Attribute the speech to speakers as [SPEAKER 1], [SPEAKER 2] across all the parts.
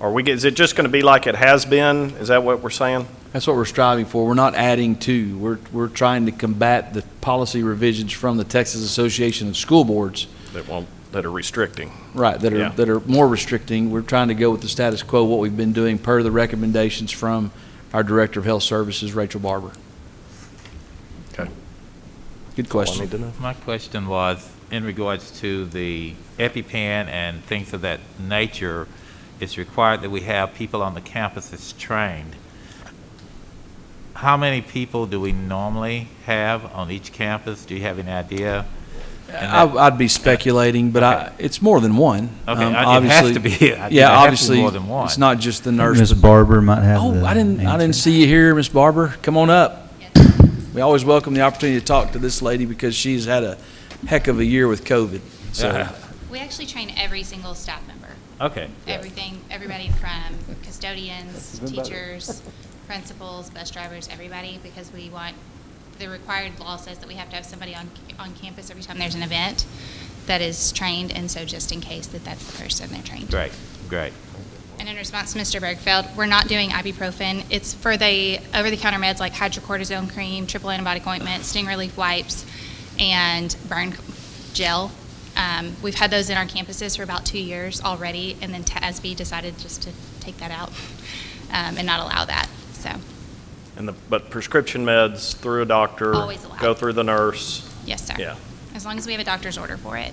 [SPEAKER 1] Are we, is it just going to be like it has been? Is that what we're saying?
[SPEAKER 2] That's what we're striving for. We're not adding to. We're, we're trying to combat the policy revisions from the Texas Association of School Boards,
[SPEAKER 1] That won't, that are restricting?
[SPEAKER 2] right, that
[SPEAKER 1] Yeah.
[SPEAKER 2] are, that are more restricting. We're trying to go with the status quo, what we've been doing per the recommendations from our Director of Health Services, Rachel Barber.
[SPEAKER 1] Okay.
[SPEAKER 2] Good
[SPEAKER 1] I
[SPEAKER 2] question.
[SPEAKER 1] need to know.
[SPEAKER 3] My question was, in regards to the EpiPen and things of that nature, it's required that we have people on the campus that's trained. How many people do we normally have on each campus? Do you have any idea? And
[SPEAKER 2] I, I'd be speculating, but I, it's more than one.
[SPEAKER 3] Okay,
[SPEAKER 2] Um,
[SPEAKER 3] it has
[SPEAKER 2] obviously-
[SPEAKER 3] to be- I think it has to be
[SPEAKER 2] Yeah, obviously,
[SPEAKER 3] more than one.
[SPEAKER 2] it's not just the nurse.
[SPEAKER 4] Ms.
[SPEAKER 2] but-
[SPEAKER 4] Barber might have
[SPEAKER 2] Oh,
[SPEAKER 4] the
[SPEAKER 2] I didn't, I didn't
[SPEAKER 4] answer.
[SPEAKER 2] see you here, Miss Barber. Come on up. We always welcome the opportunity to talk to this lady because she's had a heck of a year with COVID. So,
[SPEAKER 5] We actually train every single staff member,
[SPEAKER 3] Okay.
[SPEAKER 5] everything, everybody from custodians, teachers, principals, bus drivers, everybody, because we want, the required law says that we have to have somebody on, on campus every time there's an event that is trained, and so just in case that that's the person they're trained.
[SPEAKER 3] Great, great.
[SPEAKER 5] And in response to Mr. Bergfeld, we're not doing ibuprofen. It's for the over-the-counter meds like hydrocortisone cream, triple antibiotic ointment, sting relief wipes, and burn gel. Um, We've had those in our campuses for about two years already, and then TASB decided just to take that out um, and not allow that, so,
[SPEAKER 1] And the, but prescription meds through a doctor?
[SPEAKER 5] Always allowed.
[SPEAKER 1] Go through the nurse?
[SPEAKER 5] yes, sir.
[SPEAKER 1] Yeah.
[SPEAKER 5] As long as we have a doctor's order for it.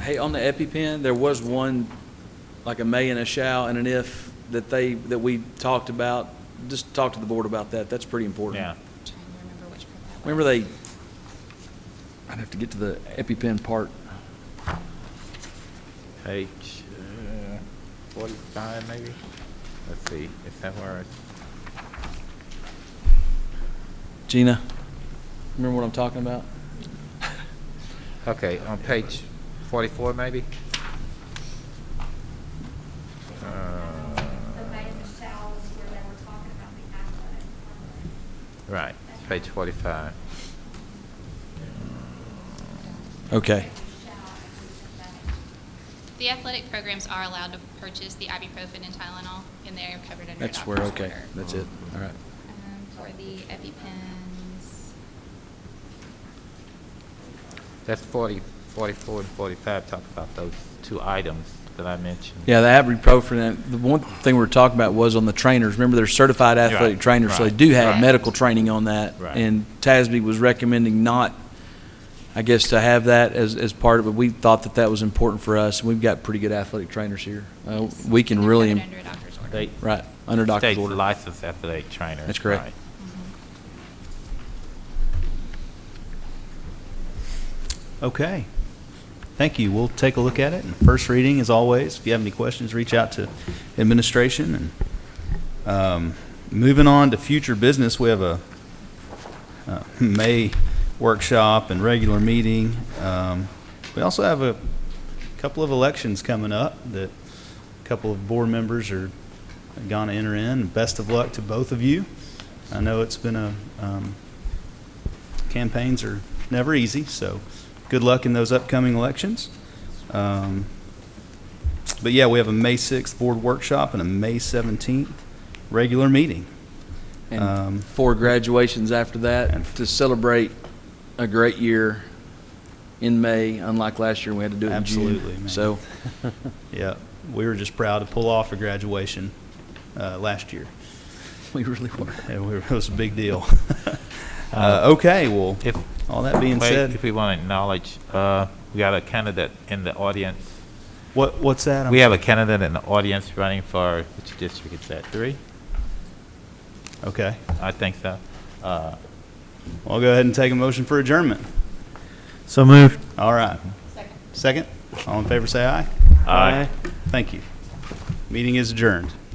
[SPEAKER 2] hey, on the EpiPen, there was one, like a may and a shall and an if that they, that we talked about. Just talk to the board about that. That's pretty important.
[SPEAKER 3] Yeah.
[SPEAKER 5] I'm Trying to remember which part that was.
[SPEAKER 2] Remember they, I'd have to get to the EpiPen part.
[SPEAKER 3] Page uh, 45, maybe? Let's see, is that where, it's-
[SPEAKER 2] Gina, remember what I'm talking about?
[SPEAKER 3] okay, on page 44, maybe? Uh,
[SPEAKER 6] the mayor Michelle was where they were talking about the athletic program.
[SPEAKER 3] Right, page 45.
[SPEAKER 2] Okay.
[SPEAKER 5] The athletic programs are allowed to purchase the ibuprofen and Tylenol, and they are covered under a
[SPEAKER 2] That's where,
[SPEAKER 5] doctor's
[SPEAKER 2] okay.
[SPEAKER 5] order.
[SPEAKER 2] That's it. All right.
[SPEAKER 5] Um, For the EpiPens,
[SPEAKER 3] That's 40, 44 and 45, talk about those two items that I mentioned.
[SPEAKER 2] Yeah, the ibuprofen, and the one thing we were talking about was on the trainers. Remember, they're certified athletic
[SPEAKER 3] Right,
[SPEAKER 2] trainers, so they
[SPEAKER 3] right,
[SPEAKER 2] do have
[SPEAKER 3] right.
[SPEAKER 2] medical training on that.
[SPEAKER 3] Right.
[SPEAKER 2] And TASB was recommending not, I guess, to have that as, as part of it. We thought that that was important for us, and we've got pretty good athletic trainers here. Uh,
[SPEAKER 5] yes,
[SPEAKER 2] We can
[SPEAKER 5] they're
[SPEAKER 2] really,
[SPEAKER 5] covered under a doctor's order.
[SPEAKER 3] They-
[SPEAKER 2] right, under doctor's
[SPEAKER 3] State's
[SPEAKER 2] order.
[SPEAKER 3] licensed athletic trainer.
[SPEAKER 2] That's correct.
[SPEAKER 3] right.
[SPEAKER 4] Okay. Thank you. We'll take a look at it. And First reading, as always, if you have any questions, reach out to administration. And um, Moving on to future business, we have a uh, May workshop and regular meeting. Um, We also have a couple of elections coming up that a couple of board members are going to enter in. Best of luck to both of you. I know it's been a um, campaigns are never easy, so good luck in those upcoming elections. Um, But yeah, we have a May 6th board workshop and a May 17th regular meeting. um,
[SPEAKER 2] And four graduations after that
[SPEAKER 4] And-
[SPEAKER 2] to celebrate a great year in May, unlike last year, we had to do it in June.
[SPEAKER 4] Absolutely, man.
[SPEAKER 2] So,
[SPEAKER 4] Yeah, we were just proud to pull off a graduation uh, last year.
[SPEAKER 2] we really were.
[SPEAKER 4] And we were- It was a big deal. Uh, Okay, well,
[SPEAKER 3] If-
[SPEAKER 4] all that being
[SPEAKER 3] Wait,
[SPEAKER 4] said,
[SPEAKER 3] If we want to acknowledge, uh, we got a candidate in the audience.
[SPEAKER 4] what what's that? I'm
[SPEAKER 3] We have a candidate in the audience running for, which district is that, three?
[SPEAKER 4] sorry. Okay,
[SPEAKER 3] I think so. Uh,
[SPEAKER 4] well, I'll go ahead and take a motion for adjournment.
[SPEAKER 7] So moved.
[SPEAKER 4] All right. Second. Second? All in favor, say aye.
[SPEAKER 1] Aye.
[SPEAKER 4] Thank you. Meeting is adjourned.